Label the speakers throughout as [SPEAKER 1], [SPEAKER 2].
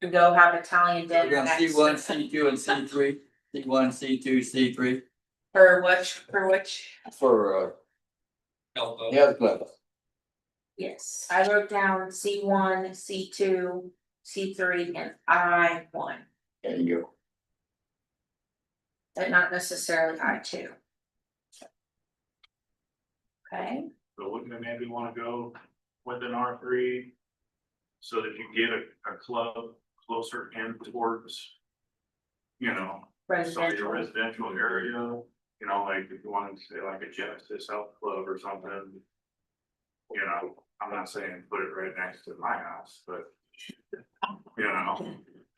[SPEAKER 1] to go have Italian
[SPEAKER 2] We're
[SPEAKER 1] dinner
[SPEAKER 2] gonna C one,
[SPEAKER 1] next,
[SPEAKER 2] C two and C three, C one, C two, C three
[SPEAKER 1] for which, for which,
[SPEAKER 2] for uh
[SPEAKER 3] elbow.
[SPEAKER 2] nail club.
[SPEAKER 1] yes, I wrote down C one, C two, C three, and I one,
[SPEAKER 2] There you go.
[SPEAKER 1] but not necessarily I two. Okay,
[SPEAKER 4] So wouldn't we maybe wanna go with an R three? So that you get a, a club closer in towards. You know, some of
[SPEAKER 1] residential,
[SPEAKER 4] your residential area, you know, like if you wanted to say like a Genesis Health Club or something. You know, I'm not saying put it right next to my house, but. You know,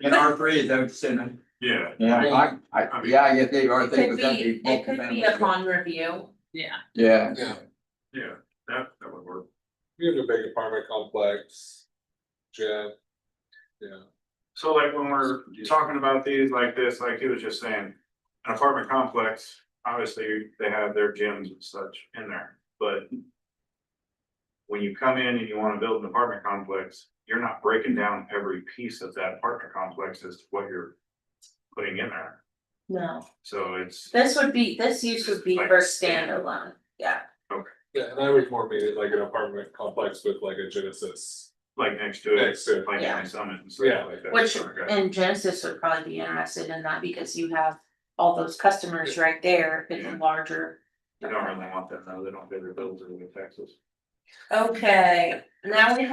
[SPEAKER 2] And R three, is that what you're saying?
[SPEAKER 4] yeah,
[SPEAKER 2] Yeah, I, I, yeah, I guess they are
[SPEAKER 1] it could
[SPEAKER 2] thinking but that'd be.
[SPEAKER 1] be, it could be upon review,
[SPEAKER 5] Yeah.
[SPEAKER 2] Yeah,
[SPEAKER 6] Yeah,
[SPEAKER 4] yeah, that, that would work.
[SPEAKER 6] you have a big apartment complex. Jen. Yeah,
[SPEAKER 4] So like when we're talking about these like this, like he was just saying, an apartment complex, obviously they have their gyms and such in there, but. When you come in and you wanna build an apartment complex, you're not breaking down every piece of that apartment complex as to what you're putting in there,
[SPEAKER 1] no,
[SPEAKER 4] so it's.
[SPEAKER 1] this would be, this use would be for standalone, yeah,
[SPEAKER 6] yeah, and I would more mean it like an apartment complex with like a Genesis.
[SPEAKER 4] Like next to it,
[SPEAKER 6] Next to it.
[SPEAKER 4] like
[SPEAKER 1] Yeah.
[SPEAKER 4] my summit and
[SPEAKER 6] Yeah.
[SPEAKER 4] stuff like that.
[SPEAKER 1] which,
[SPEAKER 4] Okay.
[SPEAKER 1] and Genesis would probably be interested in that because you have all those customers right there in the larger.
[SPEAKER 4] You don't really want that, though, they don't do their builds in Texas.
[SPEAKER 1] Okay, now we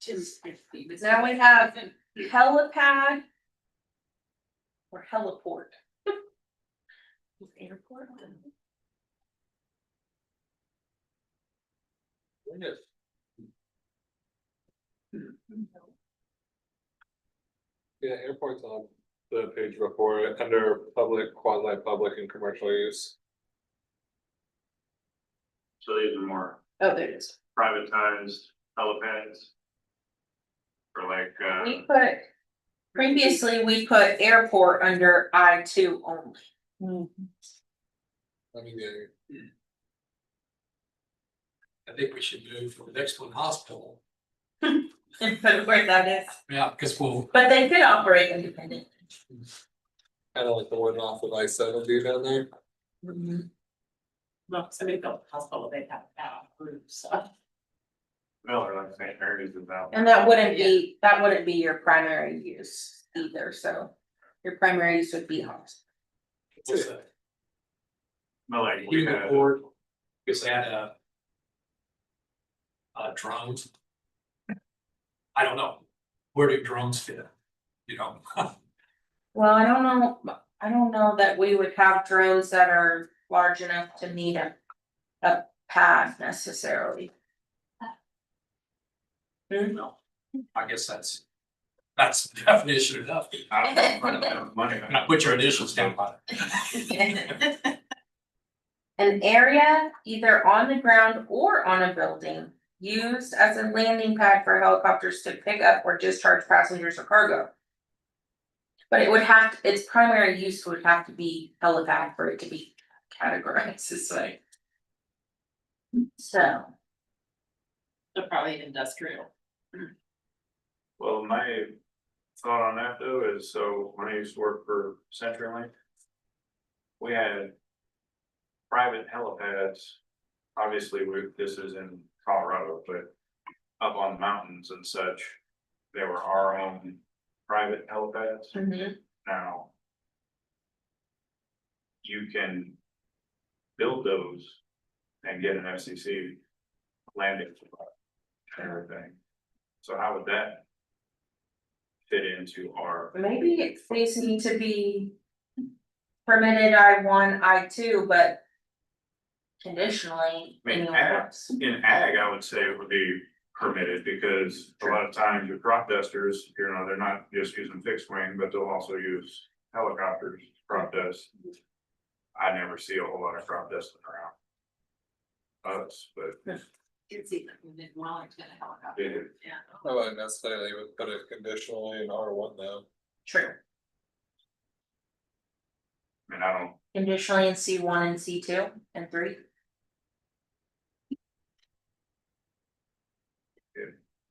[SPEAKER 5] Just fifty. but-
[SPEAKER 1] Now we have helipad. Or heliport. Oh, Airport.
[SPEAKER 6] Yeah, airport's on the page before, it, under public, quasi-public and commercial use.
[SPEAKER 4] So these are more
[SPEAKER 1] Oh, there it is.
[SPEAKER 4] privatized helipads. Or like,
[SPEAKER 1] We
[SPEAKER 4] uh,
[SPEAKER 1] put, previously, we put airport under I two only.
[SPEAKER 6] I mean, yeah,
[SPEAKER 3] I think we should move for the next one, hospital.
[SPEAKER 1] But where that is,
[SPEAKER 3] Yeah, because we'll,
[SPEAKER 1] but they could operate independently.
[SPEAKER 6] kinda like the one off of I seventy down there.
[SPEAKER 5] Well, somebody built a hospital, they have that roof, so.
[SPEAKER 4] Miller, like St. Mary's is out.
[SPEAKER 1] And that wouldn't be, that wouldn't be your primary use either, so your primary use would be hospital.
[SPEAKER 3] it's a
[SPEAKER 4] But like, we
[SPEAKER 3] human
[SPEAKER 4] had,
[SPEAKER 3] board, because they had a. Uh, drones. I don't know, where do drones fit? You know,
[SPEAKER 1] Well, I don't know, I don't know that we would have drones that are large enough to need a, a pad necessarily.
[SPEAKER 3] I guess that's, that's the definition enough,
[SPEAKER 4] I don't know, I don't have money.
[SPEAKER 3] and I put your initials down by it.
[SPEAKER 1] An area either on the ground or on a building used as a landing pad for helicopters to pick up or discharge passengers or cargo. But it would have, its primary use would have to be helipad for it to be categorized this way. So.
[SPEAKER 5] So probably industrial.
[SPEAKER 4] Well, my thought on that though is, so when I used to work for CenturyLink. We had. Private helipads. Obviously, we, this is in Colorado, but up on the mountains and such. There were our own private helipads. now. You can build those and get an FCC landing. spot and Everything, so how would that? Fit into our,
[SPEAKER 1] Maybe it- these need to be permitted I one, I two, but conditionally
[SPEAKER 4] I mean,
[SPEAKER 1] anywhere else.
[SPEAKER 4] in ag, I would say it would be permitted, because a lot of times your crop dusters, you know, they're not just using fixed wing, but they'll also use helicopters, to crop dust. I never see a whole lot of crop dusting around. Us, but
[SPEAKER 5] It's even in Wellington, a helicopter.
[SPEAKER 4] it
[SPEAKER 5] Yeah.
[SPEAKER 6] I wouldn't necessarily would put it conditionally in R one though.
[SPEAKER 1] True.
[SPEAKER 4] I mean, I don't
[SPEAKER 1] Conditionally in C one and C two and three,